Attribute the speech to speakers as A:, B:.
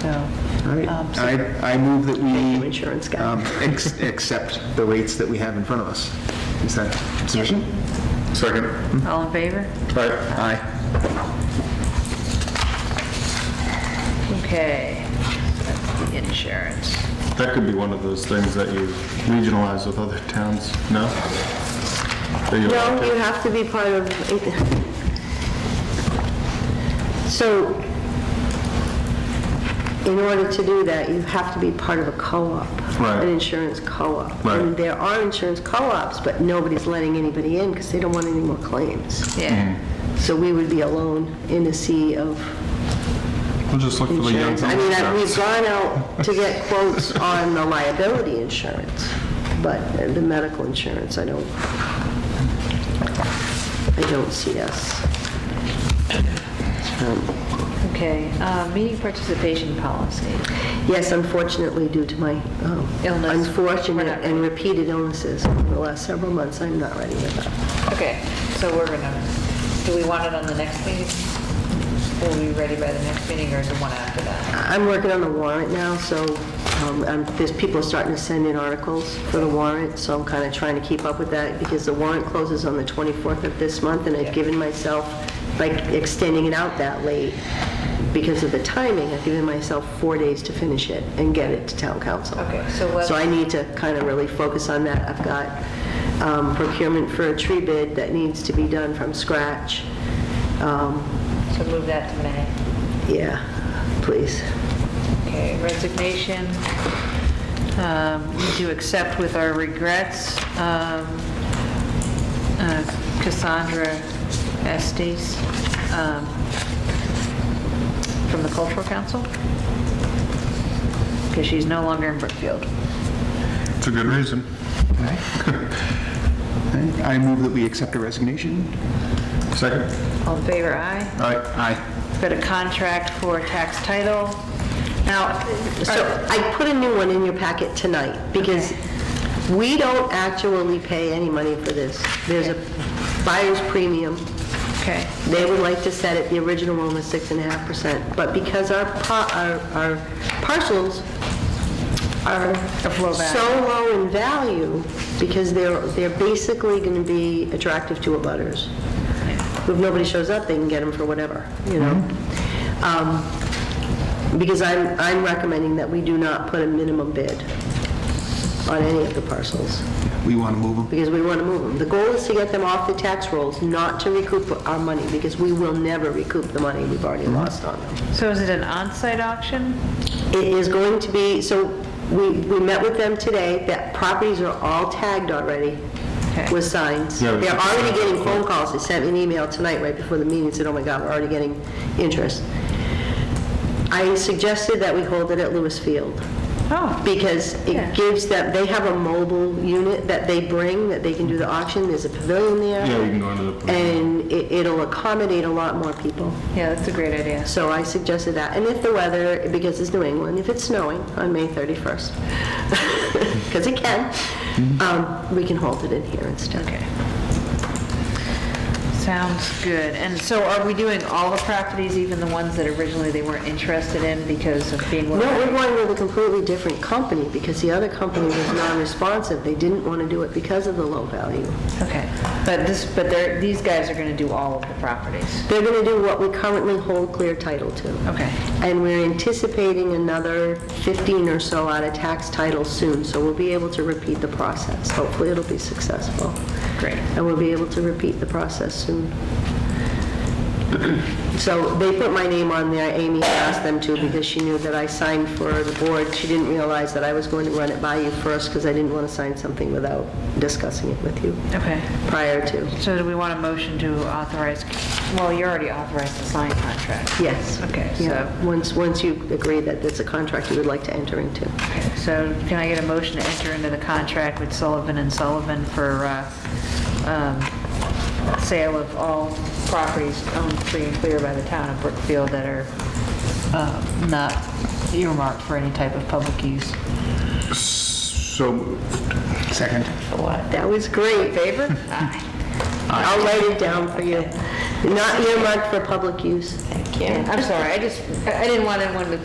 A: so.
B: All right,
A: um, so-
B: I, I move that
A: Thank you,
B: we
A: insurance guy.
B: um, ex- accept the rates that we have in front of us. Is that sufficient? Hmm?
C: Second.
A: All in favor?
C: Aye.
B: Aye.
A: Okay, that's the insurance.
C: That could be one of those things that you regionalize with other towns, no? That you-
D: No, you have to be part of, so, in order to do that, you have to be part of a co-op.
C: Right.
D: An insurance co-op.
C: Right.
D: And there are insurance co-ops, but nobody's letting anybody in because they don't want any more claims.
A: Yeah,
C: Mm-hmm.
D: So we would be alone in a sea of
C: We'll just look for the young.
D: insurance. I mean, I- we've gone out to get quotes on the liability insurance, but the medical insurance, I don't, I don't see us.
A: okay. uh, Meeting participation policy.
D: Yes, unfortunately, due to my um,
A: Illness. We're
D: unfortunate
A: not-
D: and repeated illnesses over the last several months, I'm not ready with that.
A: Okay, so we're gonna, do we want it on the next meeting? Will we be ready by the next meeting or is it one after that?
D: I'm working on the warrant now, so um, I'm- there's people starting to send in articles for the warrant, so I'm kind of trying to keep up with that because the warrant closes on the 24th of this month, and I've given myself, like extending it out that late because of the timing, I've given myself four days to finish it and get it to town council.
A: Okay, so what-
D: So I need to kind of really focus on that. I've got um, procurement for a tree bid that needs to be done from scratch. Um,
A: So move that to May.
D: Yeah, please.
A: Okay, resignation. Um, We do accept with our regrets um, uh, Cassandra Estes um, from the Cultural Council, because she's no longer in Brookfield.
C: It's a good reason.
B: Aye. I move that we accept a resignation.
C: Second.
A: All in favor, aye.
C: Aye.
B: Aye.
A: Got a contract for tax title. Now,
D: So I put a new one in your packet tonight, because we don't actually pay any money for this. There's a buyer's premium.
A: okay,
D: They would like to set it, the original one was six and a half percent, but because our, pa- our our parcels are
A: Of low value.
D: so low in value, because they're, they're basically gonna be attractive to abutters. If nobody shows up, they can get them for whatever, you know?
A: Mm-hmm.
D: Um, Because I'm, I'm recommending that we do not put a minimum bid on any of the parcels
B: We want to move them.
D: because we want to move them. The goal is to get them off the tax rolls, not to recoup our money, because we will never recoup the money we've already
C: Mm-hmm.
D: lost on them.
A: so is it an on-site auction?
D: It is going to be, so we, we met with them today, that properties are all tagged already
A: Okay.
D: with signs.
C: Yeah, we
D: They're
C: should-
D: already getting phone calls, they sent me an email tonight right before the meeting, said, oh my God, we're already getting interest. I suggested that we hold it at Lewis Field
A: Oh.
D: because
A: Yeah.
D: it gives them, they have a mobile unit that they bring, that they can do the auction, there's a pavilion there.
C: Yeah, we can go into the.
D: And it- it'll accommodate a lot more people.
A: Yeah, that's a great idea.
D: So I suggested that. And if the weather, because it's New England, if it's snowing on May 31st, because it can, um, we can hold it in here instead.
A: Okay. Sounds good. And so are we doing all the properties, even the ones that originally they weren't interested in because of being...
D: No, we're going with a completely different company because the other company was non-responsive. They didn't want to do it because of the low value.
A: Okay. But this, but they're, these guys are going to do all of the properties.
D: They're going to do what we currently hold clear title to.
A: Okay.
D: And we're anticipating another 15 or so out of tax title soon, so we'll be able to repeat the process. Hopefully, it'll be successful.
A: Great.
D: And we'll be able to repeat the process soon. So they put my name on there, Amy asked them to, because she knew that I signed for the board. She didn't realize that I was going to run it by you first, because I didn't want to sign something without discussing it with you
A: Okay.
D: prior to.
A: So do we want a motion to authorize, well, you already authorized the signed contract.
D: Yes.
A: Okay,
D: Yeah, once, once you agree that it's a contract you would like to enter into.
A: Okay, So can I get a motion to enter into the contract with Sullivan and Sullivan for uh, um, sale of all properties owned free and clear by the town of Brookfield that are uh, not earmarked for any type of public use?
C: So moved.
B: Second.
A: For what?
D: That was great.
A: Favor? Aye.
D: I'll write it down for you. Not earmarked for public use.
A: I'm sorry, I just, I I didn't want anyone to